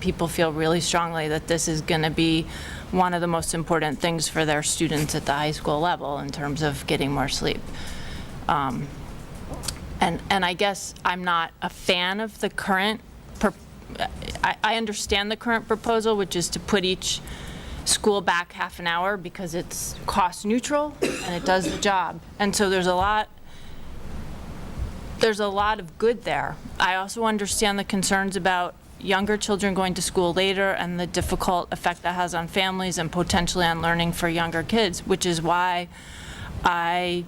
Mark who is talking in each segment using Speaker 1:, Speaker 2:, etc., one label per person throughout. Speaker 1: people feel really strongly that this is going to be one of the most important things for their students at the high school level in terms of getting more sleep. Um, And, and I guess I'm not a fan of the current, pro- I, I understand the current proposal, which is to put each school back half an hour because it's cost neutral and it does the job. And so there's a lot, there's a lot of good there. I also understand the concerns about younger children going to school later and the difficult effect that has on families and potentially on learning for younger kids, which is why I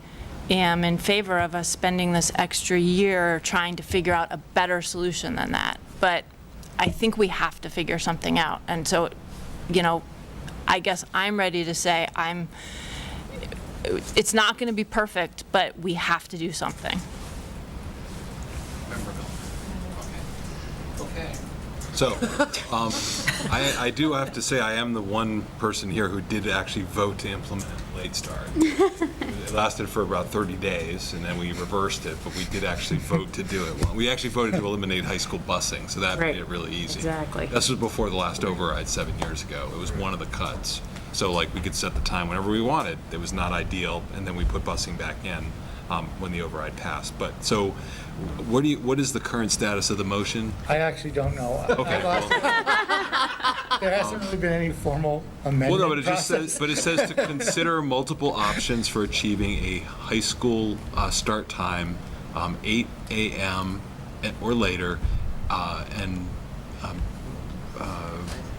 Speaker 1: am in favor of us spending this extra year trying to figure out a better solution than that. But I think we have to figure something out. And so, you know, I guess I'm ready to say I'm, it's not going to be perfect, but we have to do something.
Speaker 2: Member Miller. Okay. Okay.
Speaker 3: So, um, I, I do have to say, I am the one person here who did actually vote to implement late start. It lasted for about 30 days, and then we reversed it, but we did actually vote to do it. We actually voted to eliminate high school busing, so that made
Speaker 4: Right.
Speaker 3: it really easy.
Speaker 4: Exactly.
Speaker 3: This was before the last override seven years ago. It was one of the cuts. So like, we could set the time whenever we wanted. It was not ideal, and then we put busing back in um, when the override passed. But, so, what do you, what is the current status of the motion?
Speaker 5: I actually don't know.
Speaker 3: Okay.
Speaker 5: I lost it. There hasn't really been any formal
Speaker 3: Well, no, but it
Speaker 5: amendment
Speaker 3: just says,
Speaker 5: process.
Speaker 3: but it says to consider multiple options for achieving a high school uh, start time, um, 8 a.m. and- or later, uh, and um, uh,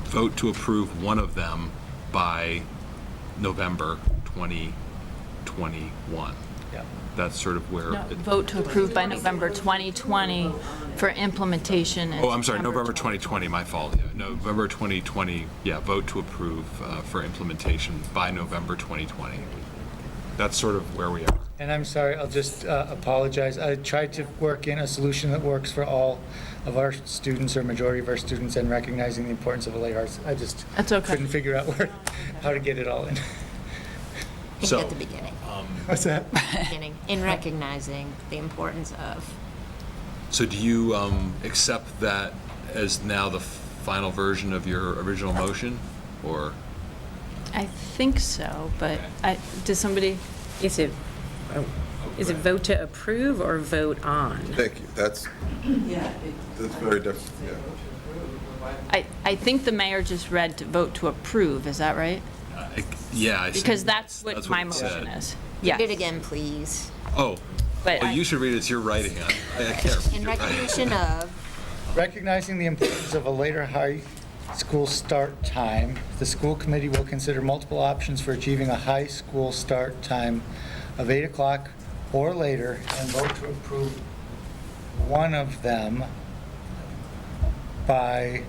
Speaker 3: vote to approve one of them by November 2021.
Speaker 5: Yeah.
Speaker 3: That's sort of where. it-
Speaker 1: Vote to approve by November 2020 for implementation. in
Speaker 3: Oh, I'm sorry, November
Speaker 1: 20.
Speaker 3: 2020, my fault. Yeah, November 2020, yeah, vote to approve uh, for implementation by November 2020. That's sort of where we are.
Speaker 5: And I'm sorry, I'll just uh, apologize. I tried to work in a solution that works for all of our students or majority of our students and recognizing the importance of LA arts. I just
Speaker 1: That's okay.
Speaker 5: couldn't figure out where, how to get it all in.
Speaker 6: think
Speaker 3: So-
Speaker 6: at the beginning,
Speaker 5: What's that?
Speaker 6: beginning, in recognizing the importance of.
Speaker 3: So do you um, accept that as now the final version of your original motion, or?
Speaker 1: I think so, but I, does somebody,
Speaker 4: Is it, is it vote to approve or vote on?
Speaker 7: Thank you, that's, that's very different, yeah.
Speaker 1: I, I think the mayor just read to vote to approve, is that right?
Speaker 3: I- Yeah. I see.
Speaker 1: Because that's what my
Speaker 3: it
Speaker 1: motion
Speaker 3: said.
Speaker 1: is.
Speaker 6: Read it
Speaker 1: Yes.
Speaker 6: again, please.
Speaker 3: Oh,
Speaker 1: But
Speaker 3: well,
Speaker 1: I-
Speaker 3: you should read it, it's your writing. I I can't read
Speaker 6: In
Speaker 3: your writing.
Speaker 6: recognition of,
Speaker 5: Recognizing the importance of a later high school start time, the school committee will consider multiple options for achieving a high school start time of 8 o'clock or later and vote to approve one of them by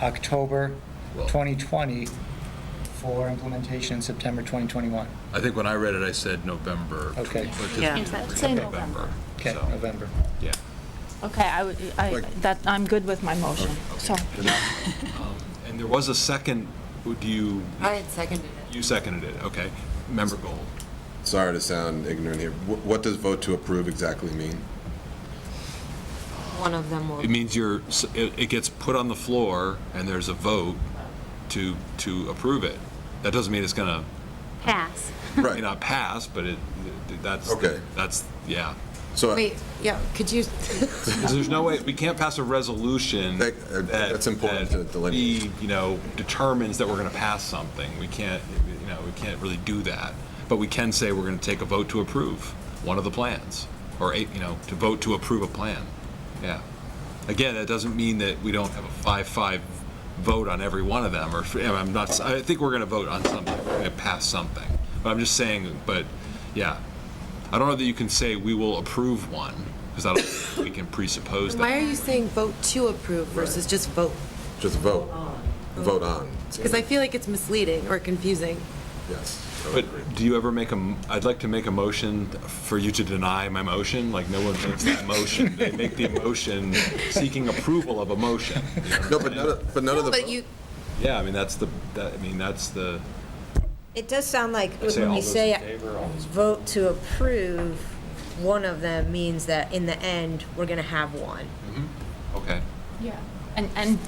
Speaker 5: October 2020 for implementation in September 2021.
Speaker 3: I think when I read it, I said November.
Speaker 5: Okay.
Speaker 3: 20
Speaker 4: Yeah.
Speaker 6: Say
Speaker 3: November.
Speaker 5: Okay,
Speaker 3: So,
Speaker 5: November.
Speaker 3: Yeah.
Speaker 1: Okay, I, would- I,
Speaker 7: Like-
Speaker 1: that, I'm good with my motion, so.
Speaker 3: And there was a second, do you?
Speaker 6: I had seconded it.
Speaker 3: You seconded it, okay. Member Gold.
Speaker 7: Sorry to sound ignorant here. Wh- What does vote to approve exactly mean?
Speaker 6: one of them will,
Speaker 3: It means you're, s- it it gets put on the floor and there's a vote to, to approve it. That doesn't mean it's gonna,
Speaker 8: Pass.
Speaker 3: may
Speaker 7: Right,
Speaker 3: not pass, but it, that's,
Speaker 7: Okay.
Speaker 3: that's, yeah.
Speaker 7: so
Speaker 6: wait, yeah, could you,
Speaker 3: 'Cause there's no way, we can't pass a resolution.
Speaker 7: That- uh,
Speaker 3: that-
Speaker 7: that's important
Speaker 3: that
Speaker 7: to delineate.
Speaker 3: be, You know, determines that we're gonna pass something. We can't, you know, we can't really do that. But we can say we're gonna take a vote to approve one of the plans, or, a- you know, to vote to approve a plan. Yeah. Again, that doesn't mean that we don't have a five-five vote on every one of them, or, I'm not, I think we're gonna vote on something, we're gonna pass something. But I'm just saying, but, yeah. I don't know that you can say we will approve one, because I don't, think we can presuppose that.
Speaker 9: Why are you saying vote to approve versus just vote?
Speaker 7: just vote, vote on,
Speaker 9: Because I feel like it's misleading or confusing.
Speaker 7: yes. I would agree.
Speaker 3: But do you ever make a, m- I'd like to make a motion for you to deny my motion, like no one makes that motion. They make the motion seeking approval of a motion. you know?
Speaker 7: No, but none of, but none of the.
Speaker 9: But you,
Speaker 3: Yeah, I mean, that's the, that, I mean, that's the,
Speaker 10: It does sound like
Speaker 3: say
Speaker 10: when
Speaker 3: all
Speaker 10: we
Speaker 3: those
Speaker 10: say
Speaker 3: in favor, all those-
Speaker 10: vote to approve, one of them means that in the end, we're going to have one.
Speaker 3: okay.
Speaker 1: And, and